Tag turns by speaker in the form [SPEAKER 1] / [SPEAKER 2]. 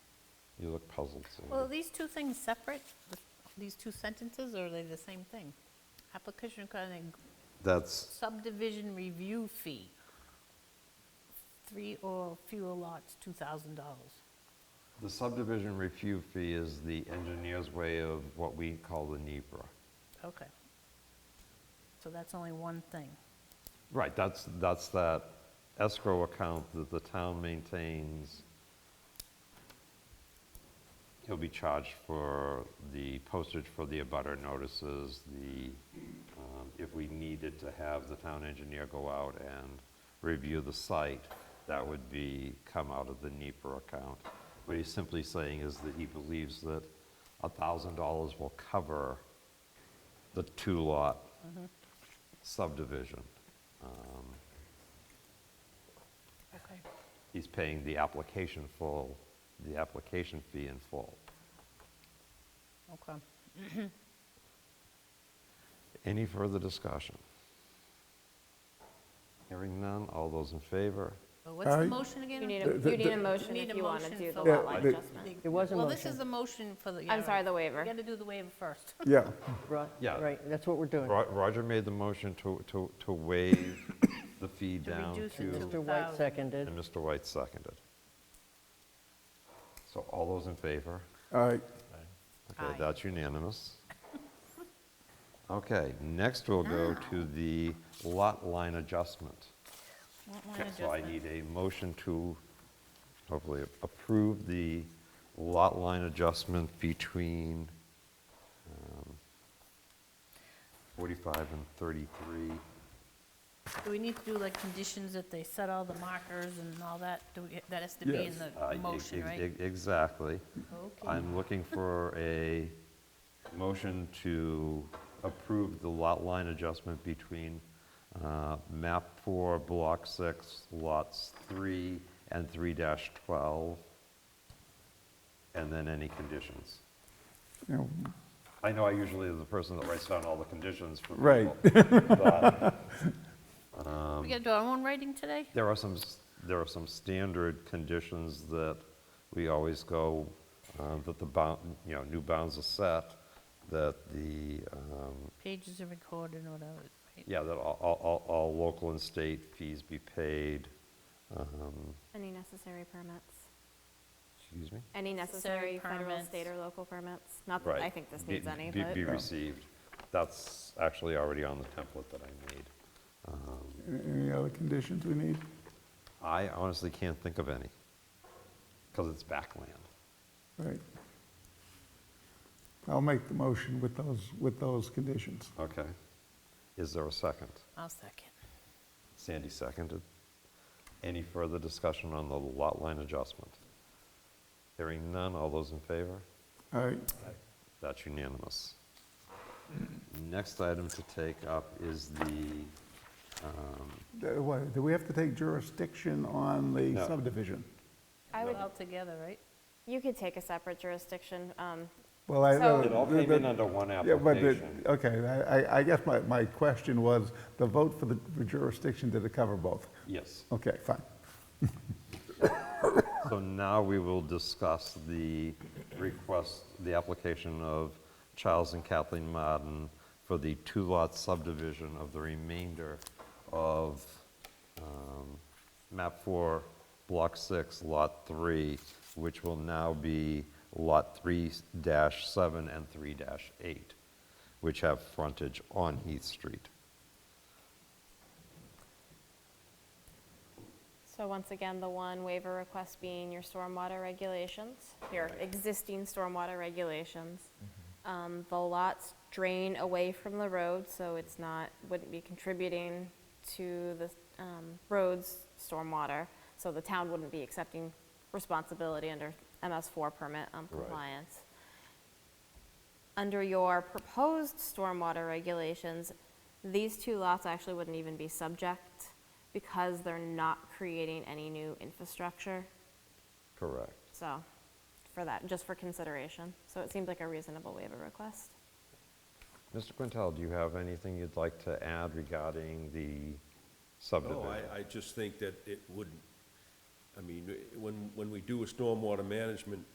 [SPEAKER 1] You look puzzled,
[SPEAKER 2] Well, are
[SPEAKER 1] Sandy.
[SPEAKER 2] these two things separate, these two sentences, or are they the same thing? Application requiring
[SPEAKER 1] That's,
[SPEAKER 2] subdivision review fee, three or fewer lots, $2,000.
[SPEAKER 1] the subdivision review fee is the engineer's way of what we call the NEPR.
[SPEAKER 2] Okay. So that's only one thing.
[SPEAKER 1] Right, that's, that's that escrow account that the town maintains. He'll be charged for the postage for the abutter notices, the, um, if we needed to have the town engineer go out and review the site, that would be, come out of the NEPR account. What he's simply saying is that he believes that $1,000 will cover the two-lot subdivision.
[SPEAKER 2] Okay.
[SPEAKER 1] he's paying the application full, the application fee in full.
[SPEAKER 2] Okay.
[SPEAKER 1] Any further discussion? Hearing none, all those in favor?
[SPEAKER 2] So what's the
[SPEAKER 3] Aye.
[SPEAKER 2] motion again?
[SPEAKER 4] You need a, you need a motion
[SPEAKER 2] Need
[SPEAKER 4] if
[SPEAKER 2] a
[SPEAKER 4] you want to
[SPEAKER 2] motion
[SPEAKER 4] do the
[SPEAKER 2] for
[SPEAKER 4] lot
[SPEAKER 2] the-
[SPEAKER 4] line
[SPEAKER 3] Yeah, the-
[SPEAKER 4] adjustment.
[SPEAKER 5] There was a
[SPEAKER 2] Well, this is the
[SPEAKER 5] motion.
[SPEAKER 2] motion for the... yeah,
[SPEAKER 4] I'm sorry,
[SPEAKER 2] right.
[SPEAKER 4] the waiver.
[SPEAKER 2] You got to do the waiver first.
[SPEAKER 3] Yeah,
[SPEAKER 5] Right,
[SPEAKER 1] Yeah.
[SPEAKER 5] right, that's what we're doing.
[SPEAKER 1] Ro- Roger made the motion to, to, to waive the fee down
[SPEAKER 2] reduce it
[SPEAKER 1] to,
[SPEAKER 2] to-
[SPEAKER 5] Mr. White
[SPEAKER 2] 2,000.
[SPEAKER 5] seconded.
[SPEAKER 1] and Mr. White seconded. So all those in favor?
[SPEAKER 3] all right,
[SPEAKER 1] Okay,
[SPEAKER 2] Aye.
[SPEAKER 1] that's unanimous. Okay, next we'll go to the lot line adjustment.
[SPEAKER 2] Lot line
[SPEAKER 1] Okay, So I
[SPEAKER 2] adjustment.
[SPEAKER 1] need a motion to hopefully approve the lot line adjustment between um, 45 and 33.
[SPEAKER 2] Do we need to do like conditions that they set all the markers and all that? Do we, that has to be in
[SPEAKER 3] Yes.
[SPEAKER 1] Uh,
[SPEAKER 2] the
[SPEAKER 1] e-
[SPEAKER 2] motion,
[SPEAKER 1] ex-
[SPEAKER 2] right?
[SPEAKER 1] ex- Exactly.
[SPEAKER 2] Okay.
[SPEAKER 1] I'm looking for a motion to approve the lot line adjustment between uh, map 4, block 6, lots 3 and 3-12, and then any conditions.
[SPEAKER 3] you know,
[SPEAKER 1] I know I usually am the person that writes down all the conditions for
[SPEAKER 3] Right.
[SPEAKER 1] people, but
[SPEAKER 2] We got to do our own writing today?
[SPEAKER 1] There are some, s- there are some standard conditions that we always go, uh, that the bound, you know, new bounds are set, that the, um,
[SPEAKER 2] Pages are recorded or whatever, right?
[SPEAKER 1] yeah, that all, all- all, all local and state fees be paid. um,
[SPEAKER 4] Any necessary permits?
[SPEAKER 1] Excuse me?
[SPEAKER 4] Any
[SPEAKER 2] Necessary
[SPEAKER 4] necessary federal,
[SPEAKER 2] permits.
[SPEAKER 4] state, or local permits? Not
[SPEAKER 1] Right.
[SPEAKER 4] that I think this
[SPEAKER 1] Be-
[SPEAKER 4] needs any,
[SPEAKER 1] be-
[SPEAKER 4] but
[SPEAKER 1] Be received. That's actually already on the template that I made.
[SPEAKER 3] any other conditions we need?
[SPEAKER 1] I honestly can't think of any, because it's backland.
[SPEAKER 3] Right. I'll make the motion with those, with those conditions.
[SPEAKER 1] Okay. Is there a second?
[SPEAKER 2] I'll second.
[SPEAKER 1] Sandy seconded. Any further discussion on the lot line adjustment? Hearing none, all those in favor?
[SPEAKER 3] All right,
[SPEAKER 1] That's unanimous. Next item to take up is the,
[SPEAKER 3] Uh, what, do we have to take jurisdiction on the
[SPEAKER 1] No.
[SPEAKER 3] subdivision?
[SPEAKER 4] I would,
[SPEAKER 2] All together, right?
[SPEAKER 4] you could take a separate jurisdiction. um,
[SPEAKER 3] Well, I.
[SPEAKER 4] So-
[SPEAKER 1] it all
[SPEAKER 3] the-
[SPEAKER 1] came in
[SPEAKER 3] the-
[SPEAKER 1] under one
[SPEAKER 3] Yeah, Uh, but, the-
[SPEAKER 1] application.
[SPEAKER 3] okay, I, I- I guess my, my question was, the vote for the for jurisdiction, did it cover both?
[SPEAKER 1] Yes.
[SPEAKER 3] Okay, fine.
[SPEAKER 1] So now we will discuss the request, the application of Charles and Kathleen Martin for the two-lot subdivision of the remainder of um, map four, block six, lot three, which will now be lot three dash seven and three dash eight, which have frontage on Heath Street.
[SPEAKER 4] So once again, the one waiver request being your stormwater regulations, your existing stormwater regulations. Um, The lots drain away from the road, so it's not, wouldn't be contributing to the um, road's stormwater. So the town wouldn't be accepting responsibility under MS4 permit um, compliance. Under your proposed stormwater regulations, these two lots actually wouldn't even be subject because they're not creating any new infrastructure.
[SPEAKER 1] Correct.
[SPEAKER 4] So, for that, just for consideration. So it seems like a reasonable waiver request.
[SPEAKER 1] Mr. Quintel, do you have anything you'd like to add regarding the
[SPEAKER 6] No,
[SPEAKER 1] subdivision?
[SPEAKER 6] Oh, I, I just think that it wouldn't, I mean, when, when we do a stormwater management